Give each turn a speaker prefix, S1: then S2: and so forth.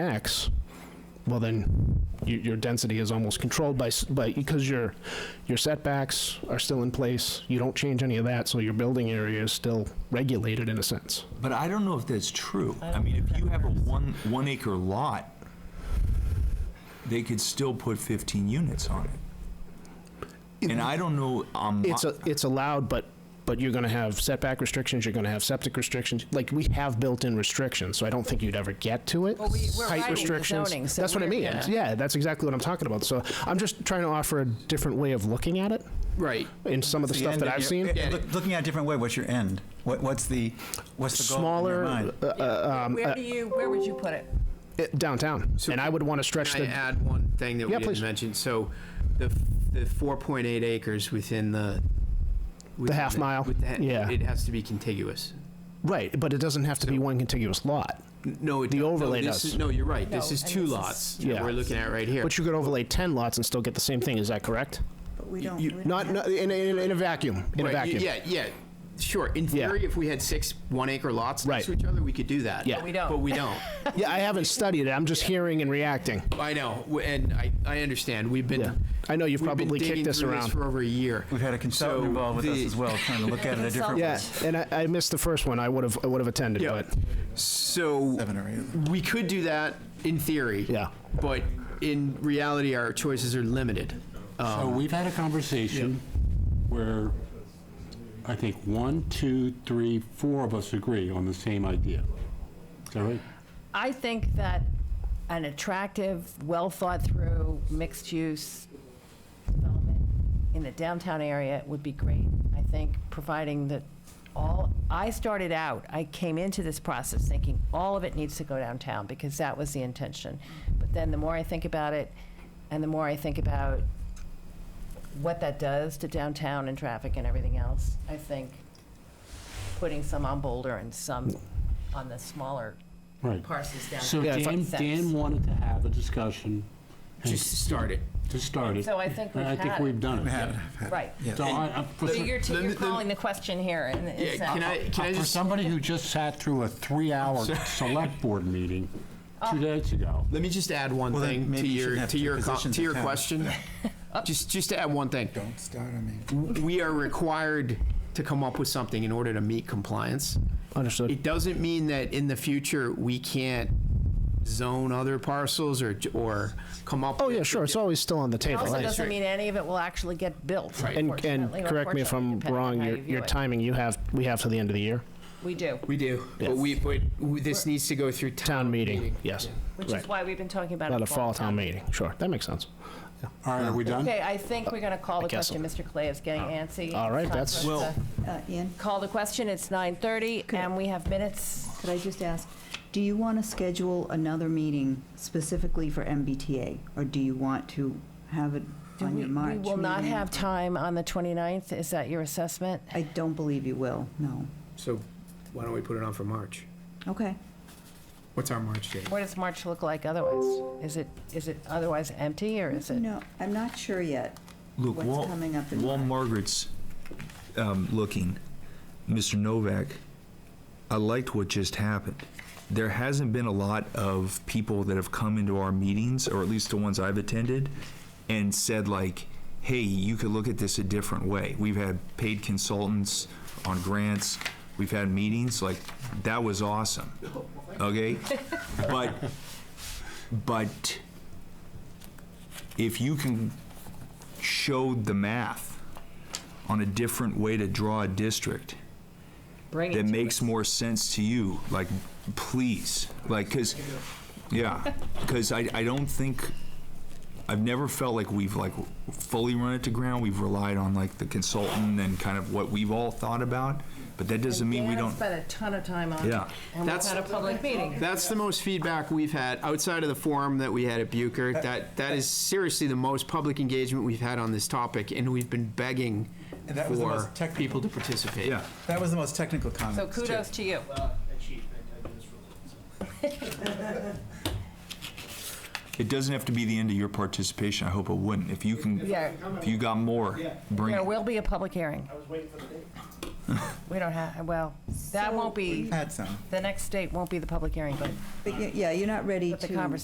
S1: X, well then, your, your density is almost controlled by, s- by, because your, your setbacks are still in place, you don't change any of that, so your building area is still regulated in a sense.
S2: But I don't know if that's true. I mean, if you have a one, one acre lot, they could still put 15 units on it. And I don't know, um,
S1: It's, a- it's allowed, but, but you're gonna have setback restrictions, you're gonna have septic restrictions, like, we have built-in restrictions, so I don't think you'd ever get to it.
S3: we- we're
S1: Height
S3: writing the
S1: restrictions.
S3: zoning, so
S1: That's what I
S3: we're-
S1: mean,
S3: yeah.
S1: yeah, that's exactly what I'm talking about, so I'm just trying to offer a different way of looking at it,
S4: Right.
S1: in some of the
S5: The
S1: stuff
S5: end
S1: that
S5: of
S1: I've
S5: your-
S1: seen.
S5: eh, look- Looking at it a different way, what's your end? What, what's the, what's the goal in
S1: Smaller,
S5: your mind?
S1: uh, uh, um,
S3: Where do you, where would you put it?
S1: it- downtown, and I would want to stretch
S4: Can I
S1: the,
S4: add one thing that we
S1: Yeah,
S4: didn't
S1: please.
S4: mention? So the, the 4.8 acres within the. within
S1: half mile,
S4: with the-
S1: yeah.
S4: It has to be contiguous.
S1: right, but it doesn't have to be one contiguous lot.
S4: No, it.
S1: The
S4: no,
S1: overlay
S4: this
S1: does.
S4: is- No, you're right. This
S3: No,
S4: is
S3: and
S4: two
S3: this is-
S4: lots that
S1: Yeah.
S4: we're looking at right here.
S1: But you could overlay 10 lots and still get the same thing, is that correct?
S3: But we don't.
S4: you-
S3: we don't
S1: Not,
S3: have-
S1: no- in, a- in a- in a vacuum, in a
S4: Right, you-
S1: vacuum.
S4: Yeah, yeah, sure. In
S1: Yeah.
S4: theory, if we had six one-acre lots next to
S1: Right.
S4: each other, we could do that.
S1: Yeah. But we
S3: don't.
S4: But we don't.
S1: Yeah, I haven't studied it, I'm just hearing and reacting.
S4: I know, w- and I, I understand. We've
S1: Yeah.
S4: been.
S1: I know you've
S4: we've been
S1: probably kicked
S4: digging
S1: this
S4: through
S1: around.
S4: For over a year.
S5: We've had a consultant
S4: So
S5: involved with us
S4: the-
S5: as well, trying to look at it a different way.
S1: Yeah, and I, I missed the first one, I would have, I would have attended,
S4: Yeah.
S1: but,
S4: So
S5: Seven or eight.
S4: we could do that in theory.
S1: Yeah.
S4: But in reality, our choices are limited. Uh,
S6: So Uh, we've had a conversation where I think one, two, three, four of us agree on the same idea. Is that right?
S3: I think that an attractive, well-thought-through, mixed-use development in the downtown area would be great. I think providing that all, I started out, I came into this process thinking all of it needs to go downtown because that was the intention. But then the more I think about it, and the more I think about what that does to downtown and traffic and everything else, I think putting some on Boulder and some on the smaller
S6: Right.
S3: parcels down.
S6: So
S3: to
S6: Dan,
S3: 50 cents.
S6: Dan wanted to have a discussion
S4: Just start it.
S6: to start it.
S3: So I think
S6: and
S3: we've
S6: I think
S3: had it.
S6: we've done it.
S5: Had-
S3: Right.
S6: So I- I- for
S3: So
S6: some-
S3: you're, t-
S4: Let me-
S3: you're
S4: let me-
S3: calling the question here and
S4: Yeah,
S3: it's uh,
S4: can I,
S1: Uh,
S4: can I
S6: For
S4: just,
S6: somebody who just sat through a three-hour select board meeting
S3: Oh.
S6: two days ago.
S4: let me just add one
S5: Well, then
S4: thing to
S5: maybe you
S4: your,
S5: shouldn't have
S4: to
S5: two
S4: your, co-
S5: positions
S4: to
S5: in
S4: your
S5: town.
S4: question. Just, just to add one thing.
S5: Don't start on me.
S4: We are required to come up with something in order to meet compliance.
S1: understood.
S4: It doesn't mean that in the future, we can't zone other parcels or, or come up.
S1: Oh,
S4: with-
S1: yeah, sure, it's always still on the
S3: It
S1: table.
S3: also
S1: right.
S3: doesn't mean any of it will actually get built,
S1: And, and
S3: unfortunately, or
S1: correct me if
S3: fortunately,
S1: I'm
S3: depending on
S1: wrong,
S3: how
S1: your,
S3: you view
S1: your
S3: it.
S1: timing, you have, we have to the end of the year,
S3: We do,
S4: We do, but we, but we- this needs to go through
S1: town meeting, yes.
S3: which
S1: Right.
S3: is why we've been talking about it.
S1: Not a
S3: for
S1: fall town meeting, sure, that makes sense.
S6: All right, are we done?
S3: Okay, I think we're going to call the
S1: guess so. Oh.
S3: question. Mr. Clay is getting antsy.
S1: All right,
S3: It's time
S1: that's-
S3: for us to
S1: Well-
S7: Uh, Ian,
S3: Call the question. It's 9:30 and we have minutes.
S7: could I just ask, do you want to schedule another meeting specifically for MBTA? Or do you want to have it
S3: Do
S7: on
S3: We
S7: your March
S3: we
S7: meeting?
S3: will not have time on the 29th. Is that your assessment?
S7: I don't believe you will, no.
S4: So why don't we put it on for March?
S7: Okay.
S4: What's our March date?
S3: What does March look like otherwise? Is it, is it otherwise empty or is it?
S7: No, I'm not sure yet.
S2: Look,
S7: What's
S2: while,
S7: coming up in
S2: while
S7: March?
S2: Margaret's um, looking, Mr. Novak, I liked what just happened. There hasn't been a lot of people that have come into our meetings, or at least the ones I've attended, and said like, "Hey, you could look at this a different way." We've had paid consultants on grants. We've had meetings like that was awesome. Okay, but but if you can showed the math on a different way to draw a district
S3: Bring it
S2: that
S3: to
S2: makes
S3: us.
S2: more sense to you, like, please, like, because, yeah, because I, I don't think, I've never felt like we've like fully run it to ground. We've relied on like the consultant and kind of what we've all thought about, but that doesn't mean we
S3: Dan
S2: don't,
S3: spent a ton of time on it.
S2: Yeah.
S3: And we've
S4: That's-
S3: had a public meeting.
S4: That's the most feedback we've had outside of the forum that we had at Bucher. That that is seriously the most public engagement we've had on this topic, and we've been begging
S5: And that was the
S4: for
S5: most technical-
S4: people to participate.
S2: yeah.
S5: That was the most technical comment.
S3: So kudos to you.
S2: It doesn't have to be the end of your participation. I hope it wouldn't. If you can,
S3: Yeah.
S2: if you got more, bring
S3: There
S2: it.
S3: will be a public hearing. We don't have, well, that
S7: So-
S3: won't be,
S5: Had some.
S3: the next date won't be the public hearing, but
S7: But y- yeah, you're not ready to.
S3: But the conversation